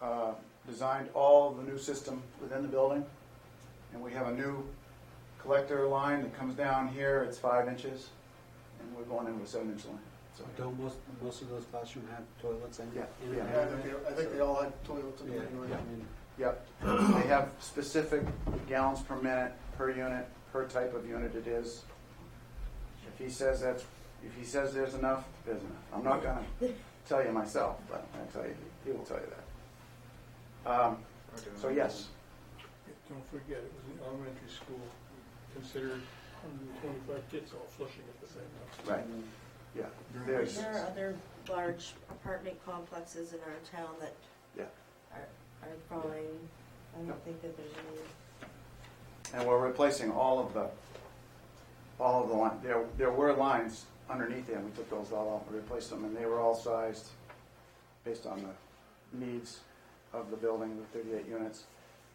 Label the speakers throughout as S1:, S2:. S1: uh, designed all the new system within the building. And we have a new collector line that comes down here, it's five inches, and we're going in with a seven inch line. So,
S2: Don't most, most of those classrooms have toilets and?
S1: Yeah,
S2: and-
S1: yeah.
S3: Yeah, I think they- I think they all had toilets in
S2: Yeah,
S3: there anyway.
S2: yeah, I mean,
S1: yep, they have specific gallons per minute, per unit, per type of unit it is. If he says that's, if he says there's enough, there's enough. I'm not gonna tell you myself, but I'll tell you, he will tell you that. Um, So yes,
S4: Don't forget, it was an elementary school, considered 125 kids all flushing at the same time.
S1: right, yeah, there's,
S5: There are other large apartment complexes in our town that
S1: yeah.
S5: are, are growing. I don't think that there's any,
S1: And we're replacing all of the, all of the line, there, there were lines underneath there, and we took those all out and replaced them, and they were all sized based on the needs of the building, the thirty-eight units.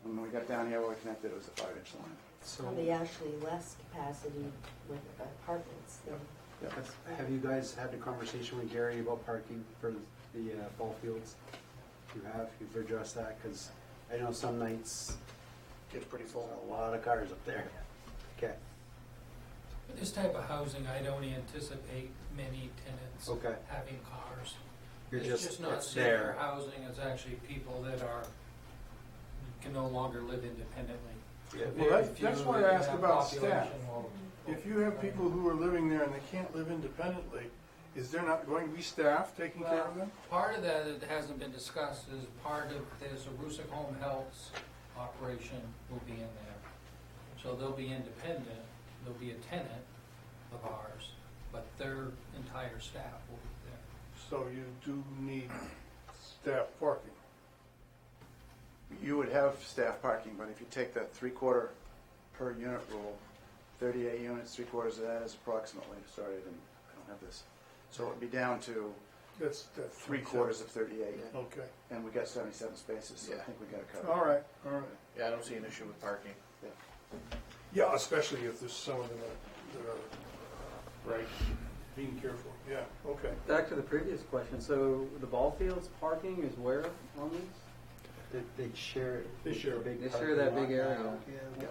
S1: And when we got down here, we connected, it was a five-inch line.
S5: probably
S2: So,
S5: actually less capacity with apartments than,
S1: Yeah.
S2: have you guys had a conversation with Gary about parking for the uh, ball fields? You have, you've addressed that, because I know some nights,
S3: Gets pretty
S2: there's
S3: full.
S2: a lot of cars up there. Okay,
S6: This type of housing, I don't anticipate many tenants
S2: okay,
S6: having cars.
S2: Oh. you're
S6: It's
S2: just,
S6: just not
S2: it's
S6: senior
S2: there.
S6: housing, it's actually people that are, can no longer live independently.
S2: Yeah.
S6: Very
S4: that-
S6: few
S4: that's why I
S6: in
S4: asked
S6: that
S4: about staff.
S6: population will-
S4: If you have people who are living there and they can't live independently, is there not going to be staff taking care of them?
S6: Part of that that hasn't been discussed is part of, there's a Rusick Home Health's operation will be in there. So they'll be independent, they'll be a tenant of ours, but their entire staff will be there.
S4: So you do need staff parking.
S1: You would have staff parking, but if you take that three-quarter per unit rule, thirty-eight units, three-quarters of that is approximately, sorry, I didn't, I don't have this. So it'd be down to
S4: That's, that's.
S1: three-quarters of thirty-eight,
S4: Okay,
S1: and we got seventy-seven spaces, so I
S3: Yeah.
S1: think we got it covered.
S4: all right, all right.
S3: Yeah, I don't see an issue with parking.
S4: Yeah, especially if there's some of them that that are, uh, right, being careful, yeah, okay.
S7: Back to the previous question, so the ball fields parking is where on these?
S2: They, they share.
S4: They share.
S2: big
S7: They share that
S2: parking
S7: big
S2: lot
S7: area.
S2: now.
S7: Yeah,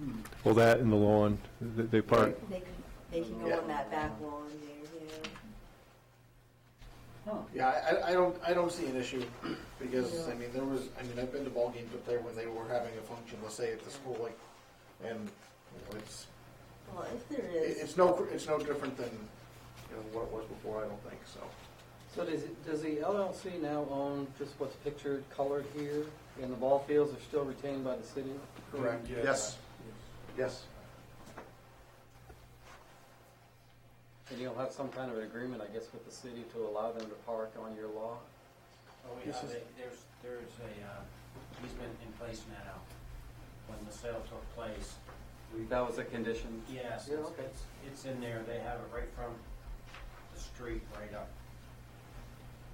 S7: okay.
S8: Well, that and the lawn, th- they park.
S5: they can, they can go on that back lawn there, yeah.
S3: Yeah, I, I- I don't, I don't see an issue, because, I mean, there was, I mean, I've been to ball games up there when they were having a function, let's say at the school, like, and, you know, it's,
S5: Well, if there
S3: it-
S5: is,
S3: it's no, it's no different than, you know, what it was before, I don't think, so.
S7: So does, it- does the LLC now own just what's pictured colored here, and the ball fields are still retained by the city?
S3: Correct.
S4: Yeah.
S1: Yes, yes.
S7: And you'll have some kind of an agreement, I guess, with the city to allow them to park on your lot?
S9: Oh, yeah,
S4: This is-
S9: they- there's, there's a, uh, easement in place now. When the sale took place,
S7: That was a condition?
S9: yes,
S7: Yeah,
S9: it's,
S7: okay.
S9: it's- it's in there, they have it right from the street, right up,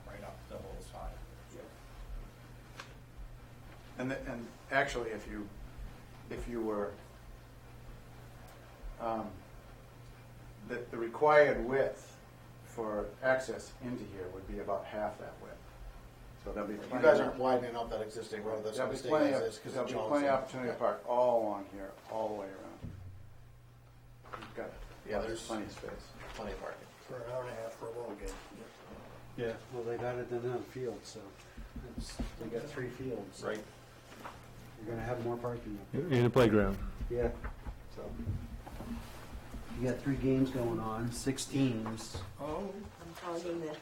S9: right up the whole side.
S1: And, the- and actually, if you, if you were, um, the, the required width for access into here would be about half that width. So there'll be
S3: You
S1: plenty.
S3: guys
S1: of-
S3: aren't widening out that existing road, that's what
S1: There'll
S3: the
S1: be
S3: state
S1: plenty, of-
S3: is, because
S1: there'll
S3: of
S1: be
S3: Johnson.
S1: plenty of opportunity to park all along here, all the way around. You've got
S3: Yeah, there's-
S1: plenty of space.
S3: Plenty of parking.
S4: For an hour and a half for a ball game.
S2: Yeah, well, they've added another field, so it's- they got three fields.
S3: Right.
S2: You're gonna have more parking. up
S8: In a playground.
S2: there. Yeah. So You got three games going on, six teams.
S4: Oh,
S5: I'm holding the,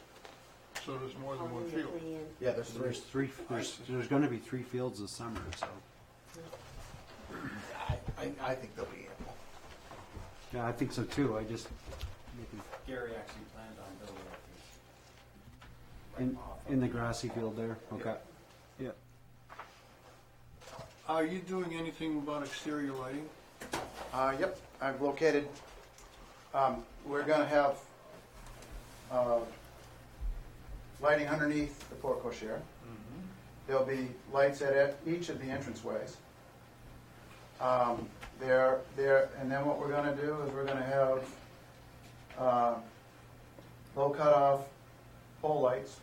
S4: so there's more than one
S5: holding the
S4: field.
S5: plan.
S3: Yeah, there's three.
S2: There's three, there's, there's gonna be three fields this summer, so.
S3: I, I, I think they'll be ample.
S2: Yeah, I think so too. I just, making-
S9: Gary actually planned on building up these.
S2: in,
S9: right off of-
S2: in the grassy field there, okay.
S8: Yeah.
S4: Are you doing anything about exterior lighting?
S1: Uh, yep, I've located, um, we're gonna have, uh, lighting underneath the port cochere. There'll be lights at e- each of the entranceways. Um, there, there, and then what we're gonna do is we're gonna have, uh, low cutoff pole lights